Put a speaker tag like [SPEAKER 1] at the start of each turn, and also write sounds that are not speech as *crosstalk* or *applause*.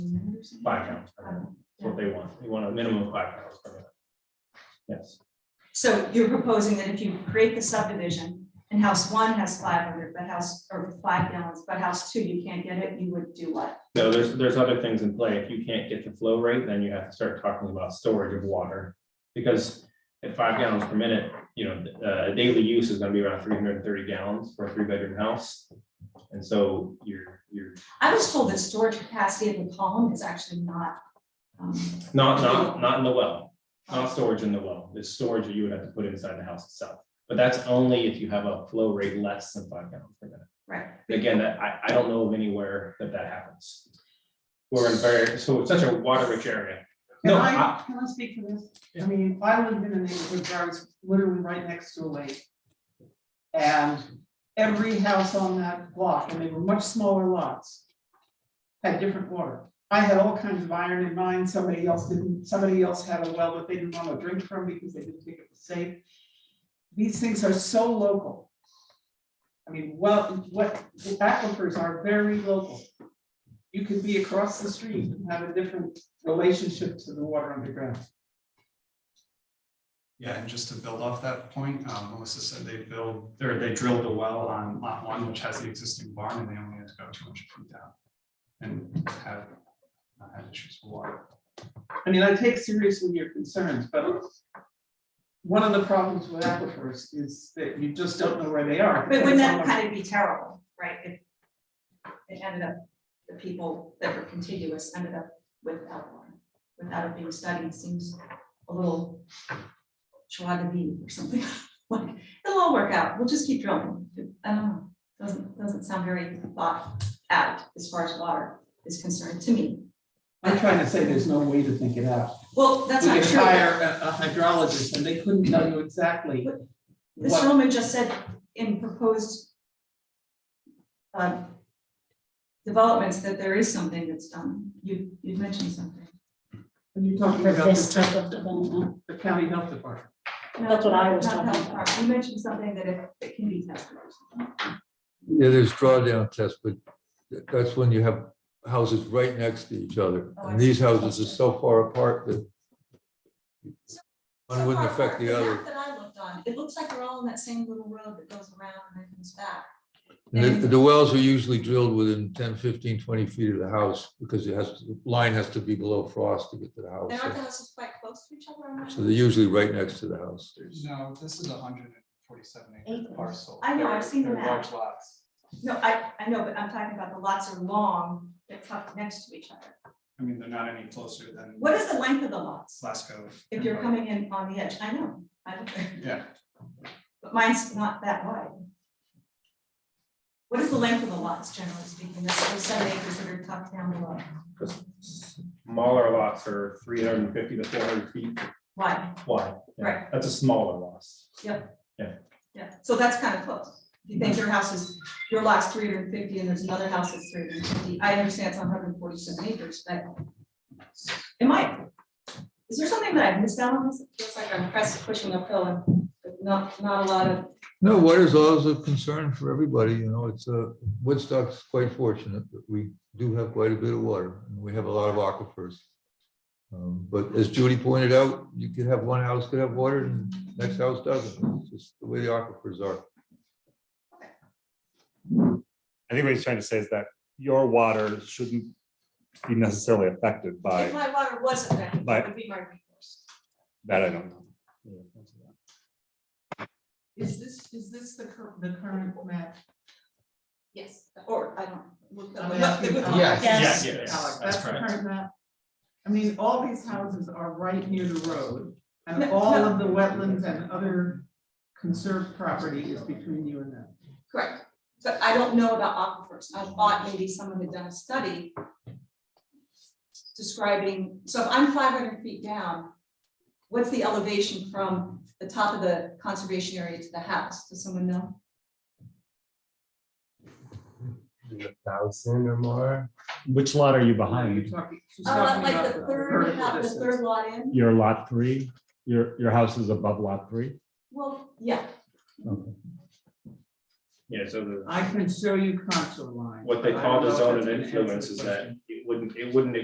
[SPEAKER 1] cows.
[SPEAKER 2] Five cows, per minute.
[SPEAKER 1] Um,
[SPEAKER 2] that's what they want, you want a minimum of five cows per minute. Yes,
[SPEAKER 1] So you're proposing that if you create the subdivision and house one has five hundred, but house, or five gallons, but house two, you can't get it, you would do what?
[SPEAKER 2] so there's, there's other things in play, if you can't get the flow rate, then you have to start talking about storage of water. Because at five gallons per minute, you know, uh, daily use is gonna be around three hundred and thirty gallons for a three bedroom house. And so you're, you're
[SPEAKER 1] I was told that storage capacity of the column is actually not, um,
[SPEAKER 2] Not, not, not in the well, not storage in the well, the storage that you would have to put inside the house itself. But that's only if you have a flow rate less than five gallons per minute.
[SPEAKER 1] right,
[SPEAKER 2] Again, that, I, I don't know of anywhere that that happens. We're in very, so it's such a water rich area.
[SPEAKER 3] Can
[SPEAKER 2] No, I-
[SPEAKER 3] I, can I speak to this? I mean, I live in a neighborhood where it's literally right next to a lake. And every house on that block, and they were much smaller lots, had different water. I had all kinds of iron in mine, somebody else didn't, somebody else had a well that they didn't want to drink from because they didn't think it was safe. These things are so local. I mean, well, what, the aquifers are very local. You could be across the street and have a different relationship to the water underground.
[SPEAKER 4] Yeah, and just to build off that point, um, Melissa said they build, or they drilled a well on lot one, which has the existing barn, and they only had to go two hundred feet down. And have, not had issues with water.
[SPEAKER 3] I mean, I take seriously your concerns, but one of the problems with aquifers is that you just don't know where they are.
[SPEAKER 1] but wouldn't that kind of be terrible, right? If it ended up, the people that were contiguous ended up without one, without it being studied, seems a little chihuahua or something, *laughs* like, it'll all work out, we'll just keep drilling. I don't know, doesn't, doesn't sound very thought out as far as water is concerned to me.
[SPEAKER 3] I'm trying to say there's no way to think it out.
[SPEAKER 1] Well, that's
[SPEAKER 3] We
[SPEAKER 1] not
[SPEAKER 3] could
[SPEAKER 1] true.
[SPEAKER 3] hire a a hydrologist and they couldn't tell you exactly
[SPEAKER 1] This
[SPEAKER 3] what,
[SPEAKER 1] gentleman just said in proposed um, developments that there is something that's done. You, you mentioned something.
[SPEAKER 3] when you're talking
[SPEAKER 5] for
[SPEAKER 3] about
[SPEAKER 5] this
[SPEAKER 3] the
[SPEAKER 5] type of development.
[SPEAKER 3] the county health department.
[SPEAKER 5] That's what I was
[SPEAKER 1] Not- not-
[SPEAKER 5] talking about.
[SPEAKER 1] You mentioned something that it- it can be tested. or something.
[SPEAKER 6] Yeah, there's drawdown tests, but th- that's when you have houses right next to each other.
[SPEAKER 1] Oh, I
[SPEAKER 6] And these
[SPEAKER 1] see.
[SPEAKER 6] houses are so far apart that
[SPEAKER 1] So
[SPEAKER 6] one wouldn't
[SPEAKER 1] far,
[SPEAKER 6] affect the
[SPEAKER 1] map
[SPEAKER 6] other.
[SPEAKER 1] That I looked on, it looks like they're all on that same little road that goes around and then comes back.
[SPEAKER 6] And The the wells are usually drilled within 10, 15, 20 feet of the house because it has, the line has to be below frost to get to the
[SPEAKER 1] And aren't the
[SPEAKER 6] house.
[SPEAKER 1] houses quite close to each other? I'm not-
[SPEAKER 6] So they're usually right next to the house.
[SPEAKER 4] No, this is a hundred and forty-seven acre
[SPEAKER 5] Acres.
[SPEAKER 4] parcel.
[SPEAKER 1] I know, I've seen the
[SPEAKER 4] They're large
[SPEAKER 1] map.
[SPEAKER 4] lots.
[SPEAKER 1] No, I, I know, but I'm talking about the lots are long, they're tucked next to each other.
[SPEAKER 4] I mean, they're not any closer than
[SPEAKER 1] What is the length of the lots?
[SPEAKER 4] Glasgow.
[SPEAKER 1] If you're coming in on the edge, I know, I don't.
[SPEAKER 4] Yeah,
[SPEAKER 1] But mine's not that wide. What is the length of the lots, generally speaking, that's those seven acres that are tucked down below,
[SPEAKER 2] Smaller lots are three hundred and fifty to four hundred feet
[SPEAKER 1] wide,
[SPEAKER 2] wide. Yeah,
[SPEAKER 1] Right.
[SPEAKER 2] That's a smaller lot.
[SPEAKER 1] yeah, so that's kind of close. If you think your house is, your lot's three hundred and fifty and there's another house that's three hundred and fifty, I understand it's hundred and forty-seven acres, but. Am I, is there something that I missed out on, this? It feels like I'm pressed, pushing uphill and not, not a lot of,
[SPEAKER 6] No, water's always a concern for everybody, you know, it's, uh, Woodstock's quite fortunate that we do have quite a bit of water and we have a lot of aquifers. Um, But as Judy pointed out, you could have one house could have water and next house doesn't. It's just the way the aquifers are.
[SPEAKER 7] I think what he's trying to say is that your water shouldn't be necessarily affected
[SPEAKER 1] if
[SPEAKER 7] by
[SPEAKER 1] my water wasn't there,
[SPEAKER 7] By-
[SPEAKER 1] it would be my recourse.
[SPEAKER 7] that, I don't know.
[SPEAKER 3] Is this, is this the cur- the current map?
[SPEAKER 1] Yes, or I don't.
[SPEAKER 3] I'm asking-
[SPEAKER 1] uh,
[SPEAKER 5] Yes. Yes.
[SPEAKER 2] Yeah, yeah, yeah,
[SPEAKER 3] Alex,
[SPEAKER 2] that's
[SPEAKER 3] that's the
[SPEAKER 2] correct.
[SPEAKER 3] current map. I mean, all these houses are right near the road and
[SPEAKER 1] No,
[SPEAKER 3] all
[SPEAKER 1] no.
[SPEAKER 3] of the wetlands and other conserved property is between you and them.
[SPEAKER 1] Correct, but I don't know about aquifers, I thought maybe someone had done a study describing, so if I'm five hundred feet down, what's the elevation from the top of the conservation area to the house, does someone know?
[SPEAKER 8] thousand or more.
[SPEAKER 7] Which lot are you
[SPEAKER 3] You're
[SPEAKER 7] behind?
[SPEAKER 3] talking- she's
[SPEAKER 1] Uh,
[SPEAKER 3] talking
[SPEAKER 1] like
[SPEAKER 3] about
[SPEAKER 1] the third,
[SPEAKER 3] vertical
[SPEAKER 1] lot- the
[SPEAKER 3] distance.
[SPEAKER 1] third lot in,
[SPEAKER 7] Your lot three, your, your house is above lot three?
[SPEAKER 1] well, yeah,
[SPEAKER 7] Okay.
[SPEAKER 2] Yeah, so the.
[SPEAKER 3] I can show you contour lines.
[SPEAKER 2] What they
[SPEAKER 3] I
[SPEAKER 2] call
[SPEAKER 3] don't
[SPEAKER 2] the
[SPEAKER 3] know if
[SPEAKER 2] zone
[SPEAKER 3] that's
[SPEAKER 2] of
[SPEAKER 3] gonna answer
[SPEAKER 2] influence
[SPEAKER 3] the
[SPEAKER 2] is
[SPEAKER 3] question.
[SPEAKER 2] that it wouldn't, it wouldn't